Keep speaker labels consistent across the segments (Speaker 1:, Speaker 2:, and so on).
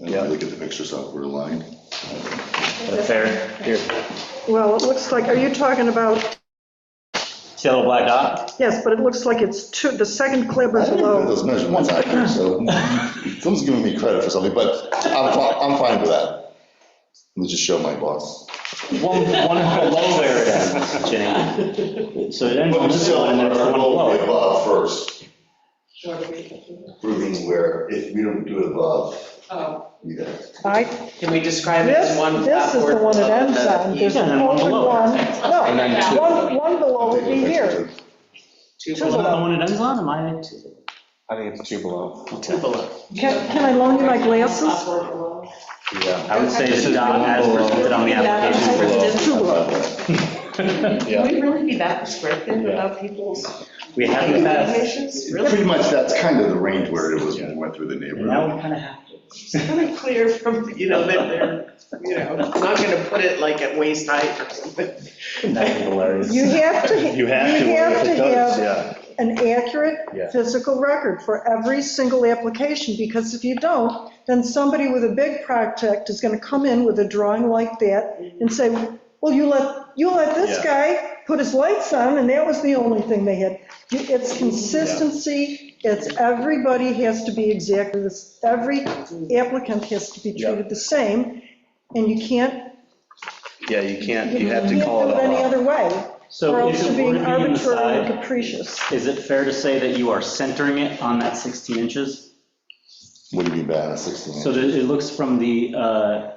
Speaker 1: And when we get the pictures up, we're aligned.
Speaker 2: Fair.
Speaker 3: Well, it looks like, are you talking about,
Speaker 2: See that little black dot?
Speaker 3: yes, but it looks like it's two, the second clip
Speaker 1: I
Speaker 3: is
Speaker 1: didn't know
Speaker 3: low.
Speaker 1: those measurements out here, so someone's giving me credit for something, but I'm, fi- I'm fine with that. Let me just show my boss.
Speaker 2: One, one below where it ends, Jenny. So it ends on
Speaker 1: But
Speaker 2: this one, and that's the one below.
Speaker 1: above first,
Speaker 4: Sure. we can do it.
Speaker 1: proving where, if we don't do it above,
Speaker 4: Oh,
Speaker 1: you guys.
Speaker 5: I,
Speaker 6: Can we describe it
Speaker 5: this,
Speaker 6: in one?
Speaker 5: this is the
Speaker 6: upward
Speaker 5: one it
Speaker 6: level
Speaker 5: ends
Speaker 6: that
Speaker 5: on,
Speaker 6: it-
Speaker 5: there's an
Speaker 2: Yeah, one
Speaker 5: open
Speaker 2: below.
Speaker 5: one,
Speaker 4: And then
Speaker 5: no,
Speaker 4: two.
Speaker 5: one, one below would be here.
Speaker 6: Two
Speaker 2: Is that
Speaker 6: below.
Speaker 2: the one it ends on? Am I? two-
Speaker 7: I think it's two below.
Speaker 6: Two below.
Speaker 3: Can, can I loan you my glasses?
Speaker 4: upward below.
Speaker 7: Yeah.
Speaker 2: I would say the dot as presented on the application.
Speaker 3: Two below.
Speaker 4: Can we really be that prescriptive about people's
Speaker 2: We have the best.
Speaker 4: patients?
Speaker 1: Pretty much, that's kind of the range where it was when we went through the
Speaker 2: Now we
Speaker 1: neighborhood.
Speaker 2: kind of have to.
Speaker 6: It's kind of clear from, you know, that they're, you know, not gonna put it like at waist height or something.
Speaker 7: That's hilarious.
Speaker 3: You have to, you have to have
Speaker 7: yeah.
Speaker 3: an
Speaker 7: Yeah.
Speaker 3: accurate physical record for every single application, because if you don't, then somebody with a big project is gonna come in with a drawing like that and say, well, you let, you let this
Speaker 7: Yeah.
Speaker 3: guy put his lights on, and that was the only thing they had. You- It's consistency, it's, everybody has to be exactly this, every applicant has to be
Speaker 7: Yeah.
Speaker 3: treated the same, and you can't,
Speaker 7: Yeah, you can't,
Speaker 3: you
Speaker 7: you have
Speaker 3: can't
Speaker 7: to
Speaker 3: do
Speaker 7: call it
Speaker 3: it any
Speaker 7: all.
Speaker 3: other way. Or
Speaker 2: So if
Speaker 3: else you're
Speaker 2: it were
Speaker 3: being
Speaker 2: to be on the
Speaker 3: arbitrary and
Speaker 2: side,
Speaker 3: capricious.
Speaker 2: is it fair to say that you are centering it on that 16 inches?
Speaker 1: What do you mean by that, 16?
Speaker 2: So that it looks from the, uh,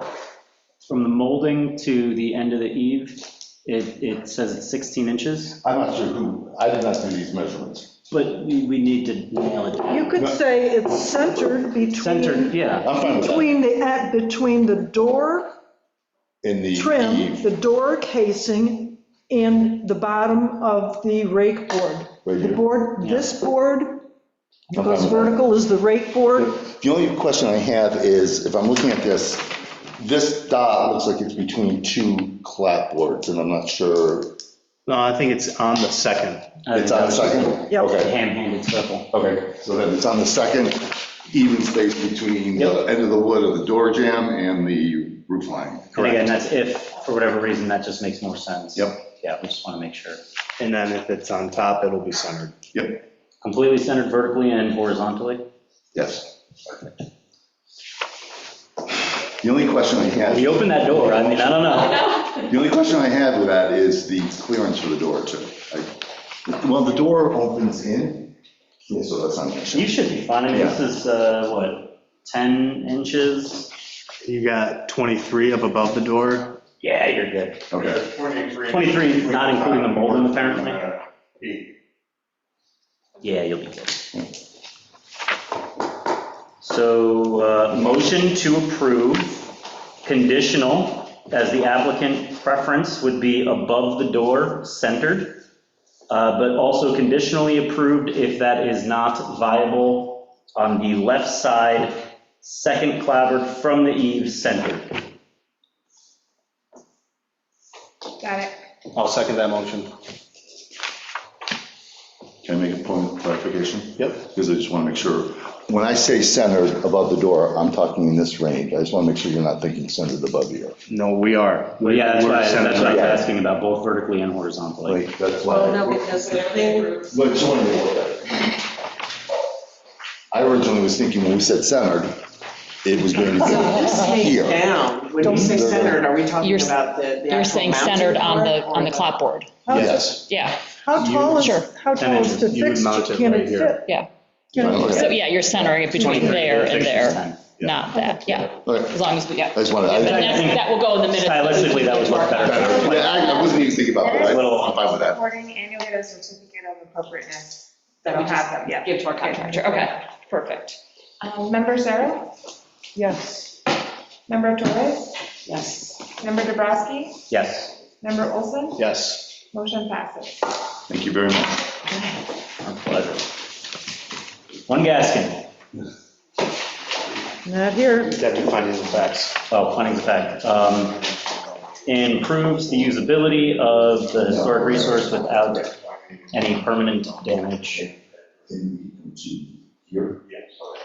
Speaker 2: from the molding to the end of the eave, it, it says it's 16 inches,
Speaker 1: I'm not sure who, I did not do these measurements.
Speaker 2: but we, we need to nail it down.
Speaker 3: You could say it's centered
Speaker 2: Centered,
Speaker 3: between,
Speaker 2: yeah.
Speaker 1: I'm fine with that.
Speaker 3: between the, at- between the door
Speaker 1: In the E,
Speaker 3: trim,
Speaker 1: eve,
Speaker 3: the door casing, and the bottom of the rake board.
Speaker 1: Right
Speaker 3: The
Speaker 1: here. Um,
Speaker 3: board, this board,
Speaker 1: I'm fine
Speaker 3: goes
Speaker 1: with that.
Speaker 3: vertical is the rake board.
Speaker 1: The only question I have is, if I'm looking at this, this dot looks like it's between two clapboards, and I'm not sure.
Speaker 7: No, I think it's on the second.
Speaker 1: It's
Speaker 2: Uh,
Speaker 1: on the second?
Speaker 3: Yep.
Speaker 1: Okay,
Speaker 2: Ham-handed circle.
Speaker 1: okay, so then it's on the second even space between the end of the wood of the door jamb and the roof line,
Speaker 2: And
Speaker 1: correct?
Speaker 2: again, that's if, for whatever reason, that just makes more sense.
Speaker 1: Yep.
Speaker 2: Yeah, we just want to make sure.
Speaker 7: And then if it's on top, it'll be centered.
Speaker 1: Yep,
Speaker 2: Completely centered vertically and horizontally?
Speaker 1: yes. The only question I have,
Speaker 2: We opened that door, I mean, I don't know.
Speaker 1: the only question I have with that is the clearance for the door too. I- Well, the door opens in, yeah, so that's not an issue.
Speaker 2: You should be fine, I mean, this is, uh, what, 10 inches?
Speaker 7: You got 23 up above the door.
Speaker 2: Yeah, you're good.
Speaker 1: Okay.
Speaker 2: 23, not including the molding apparently?
Speaker 8: Eight.
Speaker 2: Yeah, you'll be good. So, uh, motion to approve, conditional, as the applicant preference would be above the door, centered, uh, but also conditionally approved if that is not viable on the left side, second clapboard from the eave, centered.
Speaker 4: Got it.
Speaker 7: I'll second that motion.
Speaker 1: Can I make a point of clarification?
Speaker 7: Yep.
Speaker 1: Because I just want to make sure, when I say centered above the door, I'm talking in this range. I just want to make sure you're not thinking centered above here.
Speaker 7: No, we are.
Speaker 2: Well, yeah, that's
Speaker 7: We're
Speaker 2: what I, that's what I
Speaker 7: centered.
Speaker 2: was asking about, both vertically and horizontally.
Speaker 1: Like, that's why.
Speaker 4: Oh, no, because the thing,
Speaker 1: But it's only the word. I originally was thinking when we said centered, it was going to
Speaker 6: So this
Speaker 1: be
Speaker 6: came
Speaker 1: here.
Speaker 6: down, when you say centered, are we talking
Speaker 9: You're-
Speaker 6: about the? the
Speaker 9: You're
Speaker 6: actual
Speaker 9: saying
Speaker 6: mounting
Speaker 9: centered on the,
Speaker 6: part or
Speaker 9: on the clapboard.
Speaker 3: How-
Speaker 1: Yes.
Speaker 9: Yeah,
Speaker 3: How tall is,
Speaker 9: Sure.
Speaker 3: how tall is the
Speaker 7: You would mount
Speaker 3: fixture?
Speaker 7: it
Speaker 3: Can
Speaker 7: right
Speaker 3: it
Speaker 7: here.
Speaker 3: fit?
Speaker 9: yeah.
Speaker 3: Can it
Speaker 1: Okay.
Speaker 9: So,
Speaker 3: fit?
Speaker 9: yeah, you're centering it between
Speaker 2: 23,
Speaker 9: there and
Speaker 2: six inches,
Speaker 9: there,
Speaker 2: 10.
Speaker 9: not that, yeah,
Speaker 1: Okay.
Speaker 9: as long as we,
Speaker 1: I
Speaker 9: yeah.
Speaker 1: just wanted, I,
Speaker 9: But
Speaker 1: yeah,
Speaker 9: that's- that will go in the minutes.
Speaker 2: Stylistically, that would work better.
Speaker 1: I I wasn't even thinking about that. I- I'm fine with that.
Speaker 4: Recording annually a certificate of appropriateness.
Speaker 6: That we
Speaker 4: have them, yeah.
Speaker 9: Give to our contractor, okay, perfect.
Speaker 4: Um, Member Sarah?
Speaker 3: Yes.
Speaker 4: Member Torres?
Speaker 6: Yes.
Speaker 4: Member Dubrasky?
Speaker 2: Yes.
Speaker 4: Member Olson?
Speaker 7: Yes.
Speaker 4: Motion passes.
Speaker 1: Thank you very much.
Speaker 2: Our pleasure. One Gaskin.
Speaker 3: Not here.
Speaker 7: Deputy findings of facts.
Speaker 2: Oh, findings of fact. Um, Improves the usability of the historic resource without any permanent damage.
Speaker 1: Can you come to Here.
Speaker 8: Yeah, sorry.